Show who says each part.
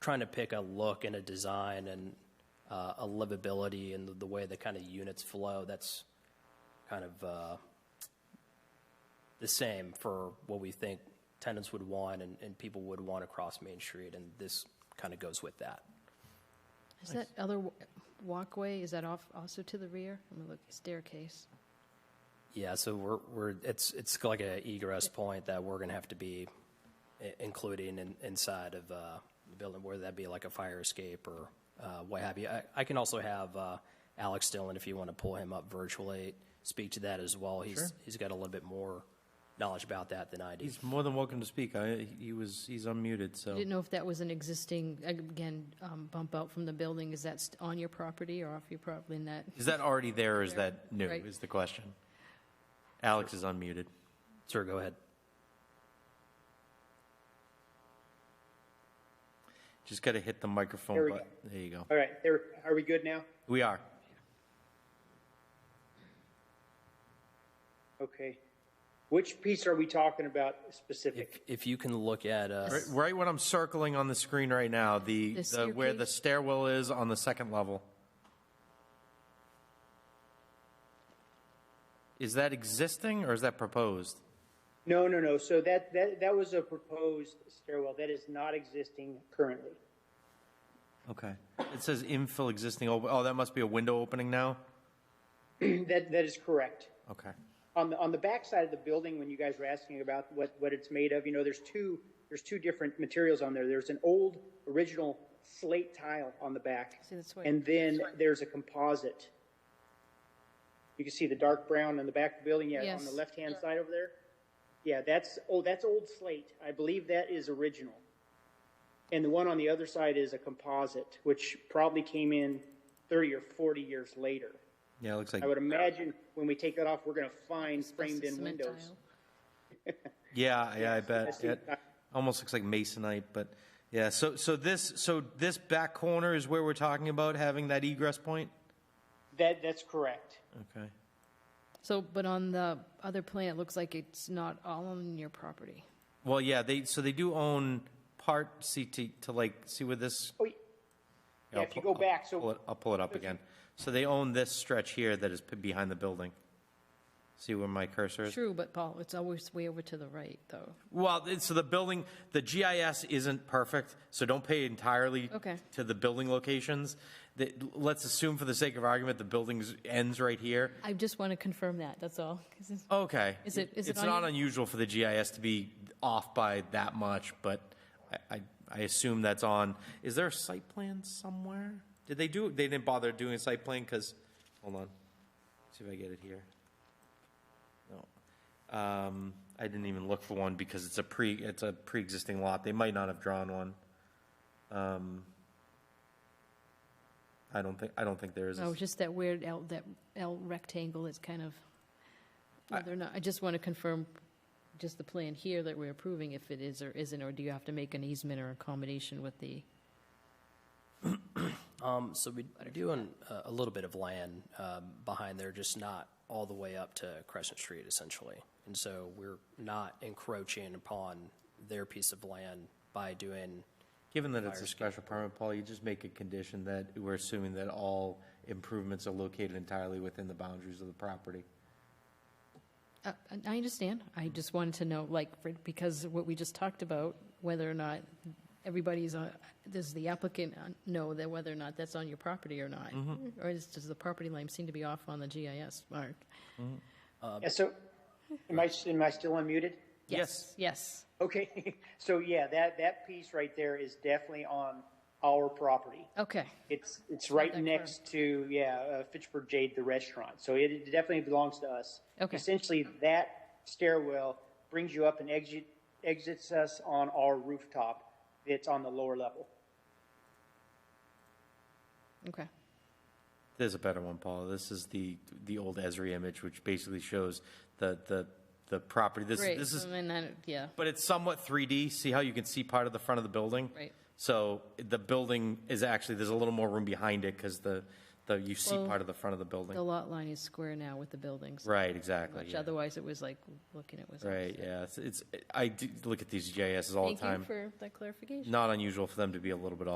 Speaker 1: trying to pick a look and a design and uh, a livability and the, the way the kind of units flow. That's kind of uh, the same for what we think tenants would want and, and people would want across Main Street, and this kind of goes with that.
Speaker 2: Is that other wa- walkway, is that off, also to the rear? I'm gonna look, staircase.
Speaker 1: Yeah, so we're, we're, it's, it's like a egress point that we're gonna have to be i- including in, inside of, uh, the building, whether that be like a fire escape or, uh, what have you. I, I can also have, uh, Alex Dillon, if you wanna pull him up virtually, speak to that as well. He's, he's got a little bit more knowledge about that than I do.
Speaker 3: He's more than welcome to speak. I, he was, he's unmuted,
Speaker 2: I
Speaker 3: so.
Speaker 2: didn't know if that was an existing, again, um, bump out from the building, is that st- on your property or off your property in that?
Speaker 3: Is that already there or is that new,
Speaker 2: Right.
Speaker 3: is the question? Alex is unmuted.
Speaker 1: Sir, go ahead.
Speaker 3: Just gotta hit the microphone
Speaker 4: There we
Speaker 3: button. There you go.
Speaker 4: All right, there, are we good now?
Speaker 3: We are.
Speaker 4: Okay. Which piece are we talking about specific?
Speaker 1: If, if you can look at, uh,
Speaker 3: Right, right when I'm circling on the screen right now, the,
Speaker 2: The
Speaker 3: the, where the
Speaker 2: staircase?
Speaker 3: stairwell is on the second level. Is that existing or is that proposed?
Speaker 4: No, no, no. So that, that, that was a proposed stairwell that is not existing currently.
Speaker 3: Okay. It says infill existing, oh, oh, that must be a window opening now?
Speaker 4: That, that is correct.
Speaker 3: Okay.
Speaker 4: On the, on the back side of the building, when you guys were asking about what, what it's made of, you know, there's two, there's two different materials on there. There's an old, original slate tile on the back.
Speaker 2: See, that's why-
Speaker 4: And then there's a composite. You can see the dark brown on the back of the building, yeah, on the
Speaker 2: Yes.
Speaker 4: left-hand side over there. Yeah, that's, oh, that's old slate. I believe that is original. And the one on the other side is a composite, which probably came in 30 or 40 years later.
Speaker 3: Yeah, it looks like,
Speaker 4: I would imagine when we take that off, we're going to find framed-in
Speaker 2: Cement
Speaker 4: windows.
Speaker 2: tile.
Speaker 3: yeah, yeah, I
Speaker 4: I
Speaker 3: bet.
Speaker 4: see.
Speaker 3: It almost looks like masonite, but yeah, so, so this, so this back corner is where we're talking about having that egress point?
Speaker 4: That, that's correct.
Speaker 3: Okay.
Speaker 2: So, but on the other plan, it looks like it's not all on your property.
Speaker 3: Well, yeah, they, so they do own part, see, to, to like, see where this
Speaker 4: Oh, yeah,
Speaker 3: I'll
Speaker 4: if you
Speaker 3: pull-
Speaker 4: go back,
Speaker 3: I'll pull
Speaker 4: so,
Speaker 3: it- I'll pull it up again. So they own this stretch here that is p- behind the building. See where my cursor is?
Speaker 2: True, but Paul, it's always way over to the right, though.
Speaker 3: Well, it's- so the building, the GIS isn't perfect, so don't pay entirely
Speaker 2: Okay.
Speaker 3: to the building locations. The- Let's assume for the sake of argument, the building ends right here.
Speaker 2: I just want to confirm that, that's all. 'cause it's-
Speaker 3: Okay.
Speaker 2: Is it- is it
Speaker 3: It's
Speaker 2: on
Speaker 3: not
Speaker 2: your-
Speaker 3: unusual for the GIS to be off by that much, but I, I, I assume that's on. Is there a site plan somewhere? Did they do, they didn't bother doing a site plan, because, hold on, see if I get it here. No. Um, I didn't even look for one because it's a pre, it's a pre-existing lot. They might not have drawn one. Um, I don't think, I don't think there is. a
Speaker 2: No, it's Oh, just that weird L, that L rectangle is kind of, whether or not, I just want to confirm just the plan here that we're approving, if it is or isn't, or do you have to make an easement or accommodation with the,
Speaker 1: Um, so we do own a, a little bit of land, um, behind there, just not all the way up to Crescent Street essentially. And so we're not encroaching upon their piece of land by doing,
Speaker 3: Given that it's a special permit, Paul, you just make a condition that we're assuming that all improvements are located entirely within the boundaries of the property.
Speaker 2: Uh, and I understand, I
Speaker 3: Mm-hmm.
Speaker 2: just wanted to know, like, for- because what we just talked about, whether or not everybody's on, does the applicant uh, know that whether or not that's on your property or not?
Speaker 3: Mm-hmm.
Speaker 2: Or is, does the property line seem to be off on the GIS mark?
Speaker 4: yeah, so, am I, am I still unmuted?
Speaker 3: Yes.
Speaker 2: Yes,
Speaker 4: Okay, so yeah, that, that piece right there is definitely on our property.
Speaker 2: okay,
Speaker 4: It's, it's right
Speaker 2: that
Speaker 4: next to, yeah, uh, Fitchburg Jade, the restaurant. So it it definitely belongs to us.
Speaker 2: Okay.
Speaker 4: Essentially, that stairwell brings you up and exit, exits us on our rooftop. It's on the lower level.
Speaker 2: okay.
Speaker 3: There's a better one, Paul. This is the, the old Esri image, which basically shows the, the, the property. This,
Speaker 2: Great,
Speaker 3: this is,
Speaker 2: I mean, I, yeah,
Speaker 3: but it's somewhat 3D. See how you can see part of the front of the building?
Speaker 2: Right.
Speaker 3: So the building is actually, there's a little more room behind it because the, the, you see
Speaker 2: Well,
Speaker 3: part of the front of the
Speaker 2: the
Speaker 3: building.
Speaker 2: lot line is square now with the buildings.
Speaker 3: Right, exactly.
Speaker 2: Which
Speaker 3: yeah.
Speaker 2: otherwise it was like, looking at was.
Speaker 3: Right, yeah. It's, it's, I do look at these GISs all the
Speaker 2: Thank you
Speaker 3: time.
Speaker 2: for that clarification.
Speaker 3: Not unusual for them to be a little bit off.